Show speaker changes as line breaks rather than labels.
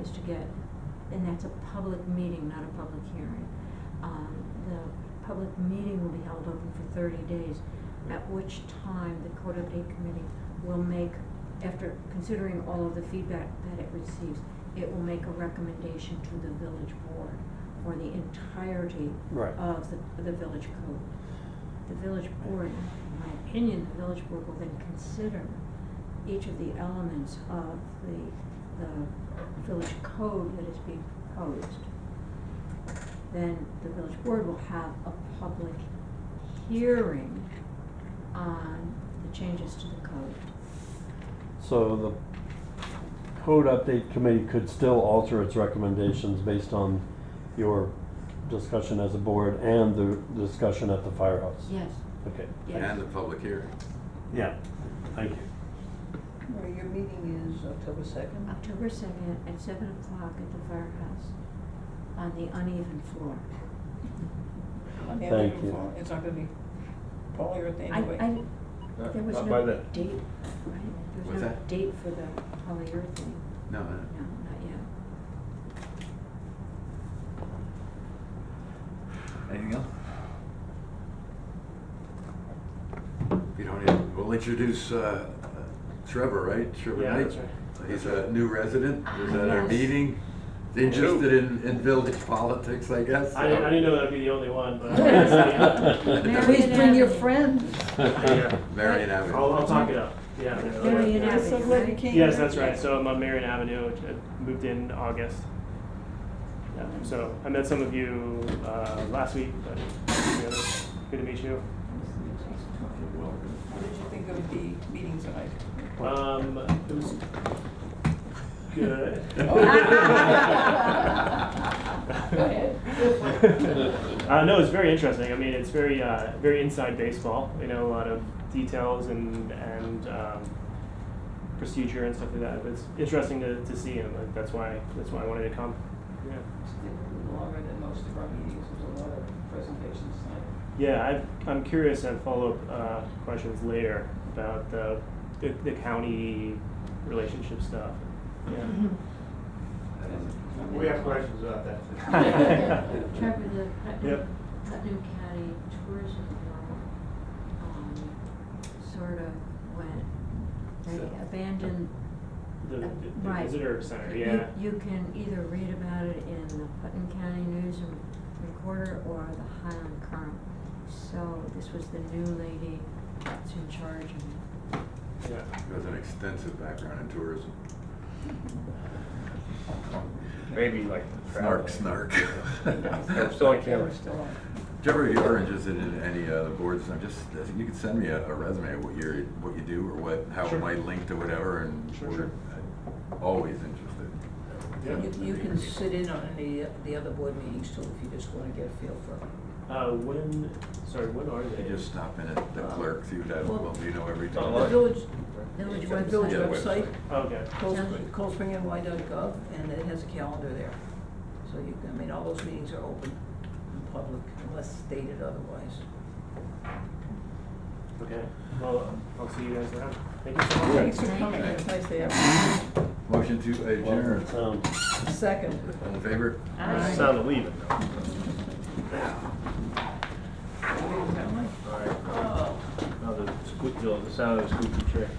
is to get, and that's a public meeting, not a public hearing. Um, the public meeting will be held open for thirty days, at which time the code update committee will make, after considering all of the feedback that it receives, it will make a recommendation to the village board for the entirety
Right.
of the, the village code. The village board, in my opinion, the village board will then consider each of the elements of the, the village code that is being proposed. Then the village board will have a public hearing on the changes to the code.
So the code update committee could still alter its recommendations based on your discussion as a board and the discussion at the firehouse?
Yes,
Okay.
yes.
And the public hearing.
Yeah, thank you.
Well, your meeting is October second?
October second at seven o'clock at the firehouse on the uneven floor.
Thank you.
It's not gonna be polyurethane
I,
anyway.
I, There was
Uh, Not by
no
then.
date, right? There was
What's
no
that?
date for the polyurethane.
No,
No,
no.
not yet.
Anything else?
If you don't, have- we'll introduce uh, Trevor, right? Trevor
Yeah,
Knight.
that's
He's a new resident, he was at our
Yes.
meeting, interested in, in village politics, I guess.
I didn't, I didn't know that'd be the only one, but.
Please bring your friend.
Yeah.
Marion
I'll,
Avenue.
I'll talk it up, yeah.
Marion
Yeah.
Avenue.
Just so glad you came.
Yes, that's right, so I'm on Marion Avenue, which I moved in August. Yeah, so I met some of you, uh, last week, but, you know, good to meet you.
What did you think of the meeting tonight?
Um, it was good.
Go ahead.
Uh, no, it's very interesting. I mean, it's very uh, very inside baseball. You know, a lot of details and and um, procedure and stuff like that. But it's interesting to, to see him. Like, that's why that's why I wanted to come. Yeah,
Longer than most of our meetings, there's a lot of presentations tonight.
yeah. I've, I'm curious and follow up uh, questions later about the, the the county relationship stuff. Yeah.
We have questions about that.
Trevor, the Putnam,
Yep.
Putnam County Tourism Bureau, um, sort of went,
So-
they abandoned.
The, the, the
Mm-hmm. Right.
visitor center.
You-
Yeah.
You can either read about it in the Putnam County News and Recorder or the Highland Current. So this was the new lady that's in charge and
Yeah.
He has an extensive background in tourism.
Maybe like.
Snark, snark.
They're still on camera still.
Trevor, if you are interested in any uh, the boards, I'm just, I think you could send me a a resume of what you're, what you do or what, how it
Sure.
might link to whatever and.
Sure,
we're,
sure.
uh, Always interested.
Yeah.
You- You can sit in on any of the other board meetings too, if you just wanna get a feel for it.
Uh, when? Sorry. When are they?
You just stop in at the clerk's, you have,
Well-
well, you know everything.
Oh,
The
Right.
village,
Village
the village
Yeah,
website,
website.
Okay.
Sounds-
coldspringny.gov, and it has a calendar there. So you can, I mean, all those meetings are open and public unless stated otherwise.
Okay. Well, um, I'll see you guys around. Thank you so much.
Thanks for
Thank
coming,
you.
It was nice to have
Motion to adjourn.
Sound.
you. Second.
All in favor?
Aye.
Sound of leaving though.
Wait, is that mine?
All right.
Oh.
No, the squeak, the sound of the squeaky chair.